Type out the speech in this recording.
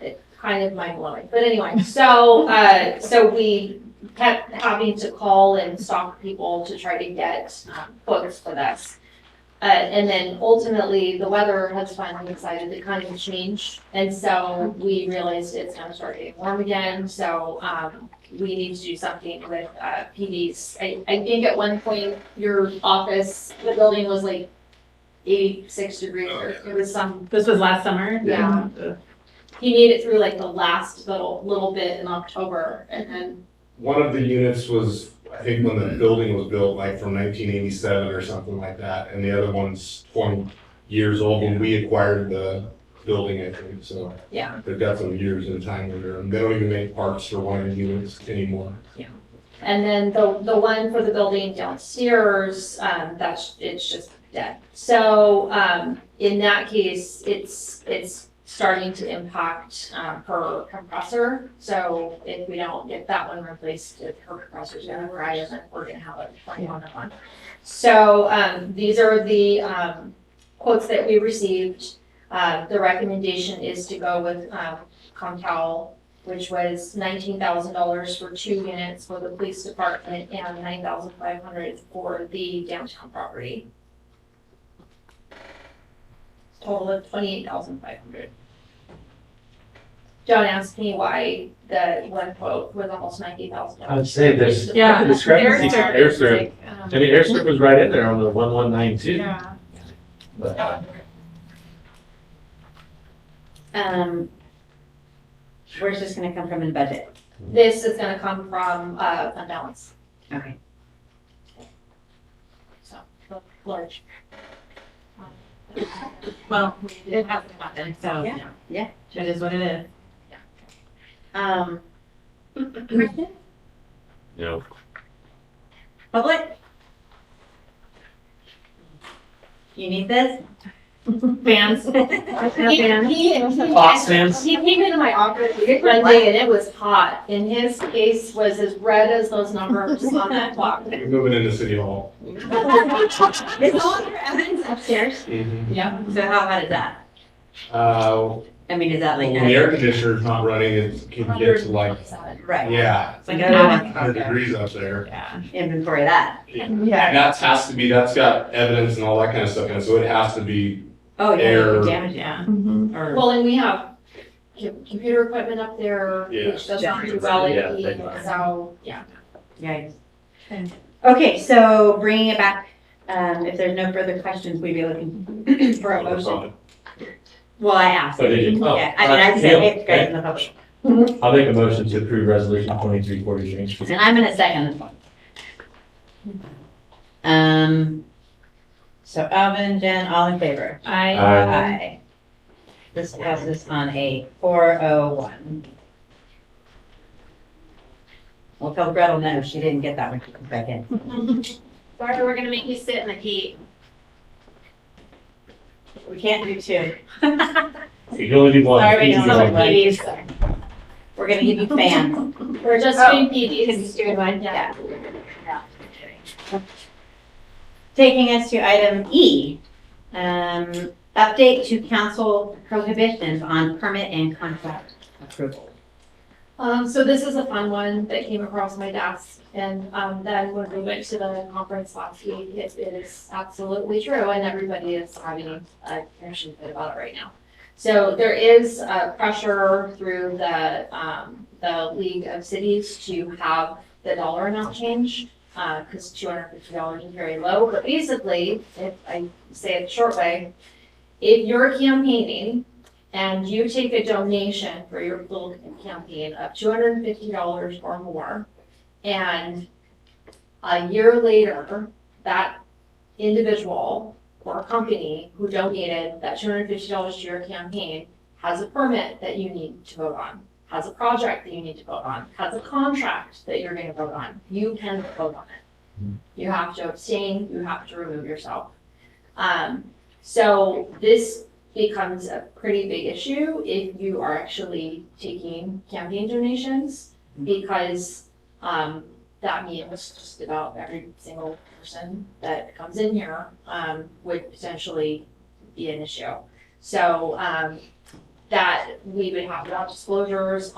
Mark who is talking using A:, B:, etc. A: it's kind of mind blowing. But anyway, so, uh, so we kept having to call and stalk people to try to get um, quotes for this. Uh, and then ultimately, the weather has finally decided to kind of change. And so we realized it's gonna start getting warm again, so, um, we need to do something with, uh, PDs. I, I think at one point, your office, the building was like eighty-six degrees, or it was some
B: This was last summer?
A: Yeah. he made it through like the last little little bit in October, and then
C: One of the units was, I think when the building was built, like from nineteen eighty-seven or something like that, and the other one's twenty years old when we acquired the building, I think, so.
A: Yeah.
C: They've got some years in time with them. They don't even make parts for one of the units anymore.
A: and then the the one for the building downstairs, um, that's it's just dead. So um, in that case, it's it's starting to impact um, her compressor. So if we don't get that one replaced, if her compressor's gonna fry, then we're gonna have a twenty one on. So um, these are the um, quotes that we received. Uh, the recommendation is to go with um, Comcal, which was nineteen thousand dollars for two units for the police department and nine thousand five hundred for the downtown property. Total of twenty-eight thousand five hundred. John asked me why the one quote was almost ninety thousand
D: I
A: dollars.
D: would say there's
B: Yeah.
D: discrepancy from
B: Airstrip.
D: airstrip. I mean, airstrip was right in there on the one one nine two,
B: Yeah.
D: but uh,
E: Um, where's this gonna come from in the budget?
A: This is gonna come from, uh, unbalanced,
E: Okay.
A: so, large.
B: Well,
A: It hasn't happened,
B: so.
E: Yeah, yeah.
B: It is what it is.
E: Um,
D: you know,
E: public? You need this?
B: Fans.
A: He, he,
D: Fox fans.
A: he came into my office one day and it was hot, and his face was as red as those numbers on that clock.
C: We're Moving into City Hall.
E: Is all your evidence upstairs?
B: Yeah.
E: So how hot is that?
C: Uh,
E: I mean, is that like?
C: when the air conditioner's not running, it can get to like,
E: Right.
C: yeah,
B: It's like
E: No.
B: a.
C: hundred degrees up there.
B: Yeah.
E: Inventory of that.
B: Yeah.
C: And that has to be, that's got evidence and all that kind of stuff, and so it has to be,
E: Oh, yeah,
C: Air.
E: you can damage it.
B: Yeah.
E: Or-
A: Well, and we have com- computer equipment up there, which does not do well
D: Yeah,
A: at heat,
D: they are.
A: so, yeah.
E: Yikes.
B: Okay.
E: Okay, so bringing it back, um, if there's no further questions, we'd be looking for a motion. Well, I asked.
D: So did you? Oh,
E: Yeah, I mean, I
D: uh,
E: said,
D: yeah,
E: it's great in the public.
D: I'll make a motion to approve resolution twenty-three forty-three.
E: And I'm gonna second this one. Um, so Alvin, Jen, all in favor?
B: I,
D: Aye.
E: Aye. This passes on a four oh one. Well, tell Gretel no, she didn't get that one, she comes back in.
A: Barbara, we're gonna make you sit in the heat.
E: We can't do two.
D: You can only do one.
E: Sorry, we
D: Please
E: don't
D: do
E: know
D: one.
E: what ladies. We're gonna give you fans.
A: We're just doing PDs. doing one,
E: yeah. Taking us to item E, um, update to council prohibitions on permit and contract approval.
A: Um, so this is a fun one that came across my desk, and, um, then when we went to the conference last week, it is absolutely true, and everybody is having a passion fit about it right now. So there is, uh, pressure through the, um, the League of Cities to have the dollar amount change, uh, cause two hundred fifty dollars is very low, but basically, if I say it the short way, if you're campaigning and you take a donation for your little campaign of two hundred and fifty dollars or more, and a year later, that individual or company who donated that two hundred and fifty dollars to your campaign has a permit that you need to vote on, has a project that you need to vote on, has a contract that you're gonna vote on, you can vote on it. You have to abstain, you have to remove yourself. Um, so this becomes a pretty big issue if you are actually taking campaign donations because um, that means just about every single person that comes in here um, would potentially be an issue. So um, that we would have about disclosures